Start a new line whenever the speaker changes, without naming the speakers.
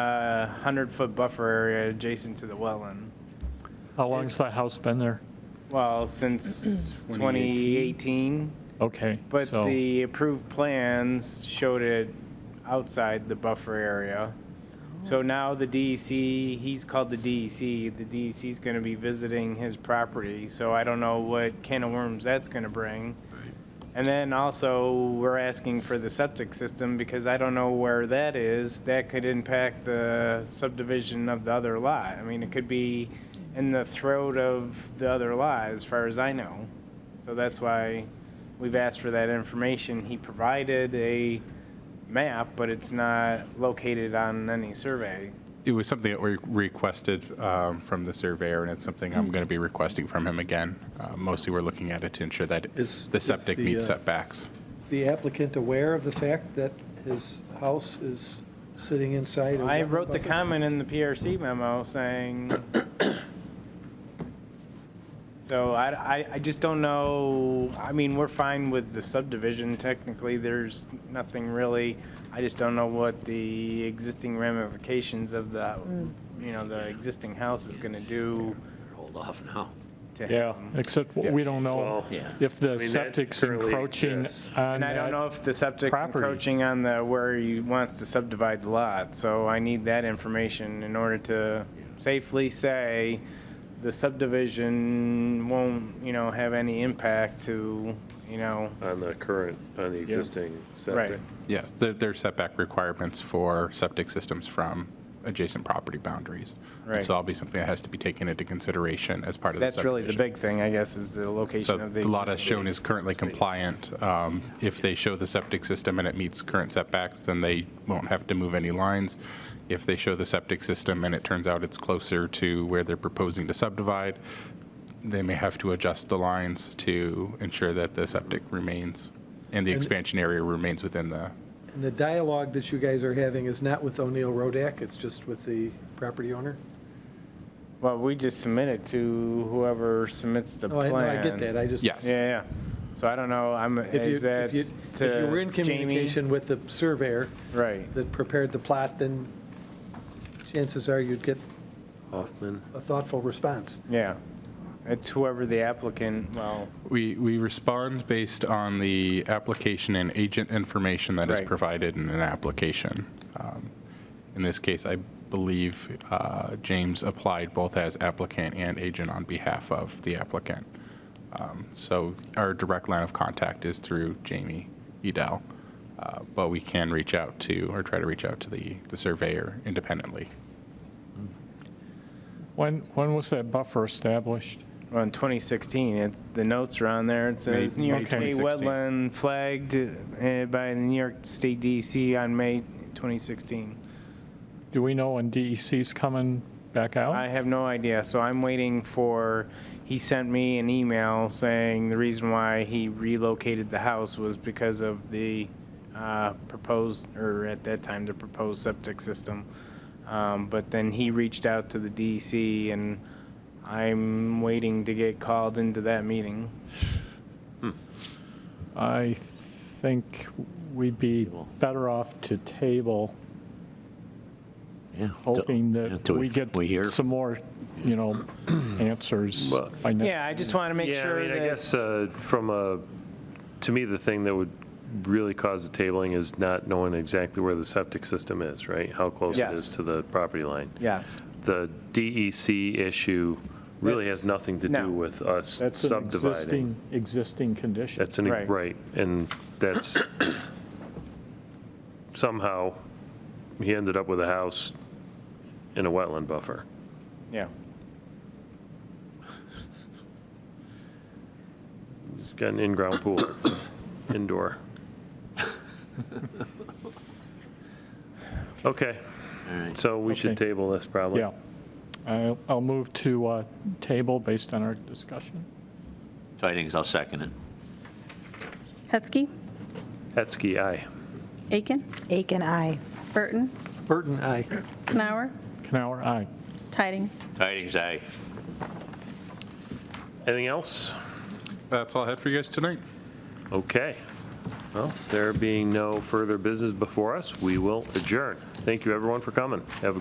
the 100-foot buffer area adjacent to the wetland.
How long's the house been there?
Well, since 2018,
Okay,
but
so,
the approved plans showed it outside the buffer area. So now the DEC, he's called the DEC, the DEC's going to be visiting his property, so I don't know what can of worms that's going to bring. And then also, we're asking for the septic system because I don't know where that is. That could impact the subdivision of the other lot. I mean, it could be in the throat of the other lot, as far as I know. So that's why we've asked for that information. He provided a map, but it's not located on any survey.
It was something that we requested um, from the surveyor, and it's something
Mm.
I'm going to be requesting from him again. Uh, Mostly, we're looking at it to ensure that
Is-
the
is
septic
the,
meets
uh,
setbacks.
Is the applicant aware of the fact that his house is sitting inside? a
I
wetland
wrote the
buffer?
comment in the PRC memo saying, so I, I, I just don't know, I mean, we're fine with the subdivision technically, there's nothing really, I just don't know what the existing ramifications of the, you know, the existing house is gonna do
Hold off now.
to
yeah,
him.
except w- we don't know
Well, yeah.
if
I
the
mean, that
septic's
currently
encroaching
exists.
on
And I don't know
that.
if the septic's
property.
encroaching on the, where he wants to subdivide the lot, so I need that information in order to safely say the subdivision won't, you know, have any impact to, you know,
On the current, on the existing
right.
septic.
Yes, there there are setback requirements for septic systems from adjacent property boundaries. And
Right.
So that'll be something that has to be taken into consideration as part of the
That's really the
subdivision.
big thing, I guess, is the
So
location of the.
the lot as
existing-
shown is currently compliant. Um, If they show the septic system and it meets current setbacks, then they won't have to move any lines. If they show the septic system and it turns out it's closer to where they're proposing to subdivide, they may have to adjust the lines to ensure that the septic remains and the expansion area remains within the,
And the dialogue that you guys are having is not with O'Neill Rodak, it's just with the property owner?
Well, we just submit it to whoever submits the
No, Oh, I-
plan.
no, I get that, I just.
yes.
Yeah, yeah. So I don't know, I'm,
If you,
is that
if
to
you,
Jamie?
if you were in communication with the surveyor
Right.
that prepared the plot, then chances are you'd get
Hoffman.
a thoughtful response.
Yeah. It's whoever the applicant, well,
We, we respond based on the application and agent information that is
Right.
provided in an application. Um, In this case, I believe uh, James applied both as applicant and agent on behalf of the applicant. Um, So our direct line of contact is through Jamie Edel, uh, but we can reach out to, or try to reach out to the, the surveyor independently.
When, when was that buffer established?
Well, in 2016, it's, the notes are on there. It says
May-
New York
May
State
2016.
wetland flagged uh, by the New York State DEC on May 2016.
Do we know when DEC's coming back
I
out?
have no idea, so I'm waiting for, he sent me an email saying the reason why he relocated the house was because of the uh, proposed, or at that time, the proposed septic system. Um, But then he reached out to the DEC, and I'm waiting to get called into that meeting.
I think we'd be better off to table,
Yeah.
hoping that
Until
we get
We hear.
some more, you know, answers
Well-
by next.
Yeah, I just want to make
Yeah, I
sure
mean, I
that,
guess uh, from a, to me, the thing that would really cause the tabling is not knowing exactly where the septic system is, right? How close it is
Yes.
to the property line.
yes,
The DEC issue really has
That's-
nothing to
no.
do with us
That's an
subdividing.
existing, existing condition.
That's an, e-
Right.
right, and that's, somehow, he ended up with a house in a wetland buffer.
yeah.
He's got an in-ground pool, indoor. Okay,
All right.
so we should
Okay.
table this probably.
Yeah. I'll, I'll move to uh, table based on our discussion.
Tidings, I'll second it.
Hetzke.
Hetzke, aye.
Aiken.
Aiken, I.
Burton.
Burton, aye.
Knauer.
Canower, aye.
Tidings.
Tidings, aye.
Anything else?
That's all I had for you guys tonight.
Okay. Well, there being no further business before us, we will adjourn. Thank you, everyone, for coming. Have a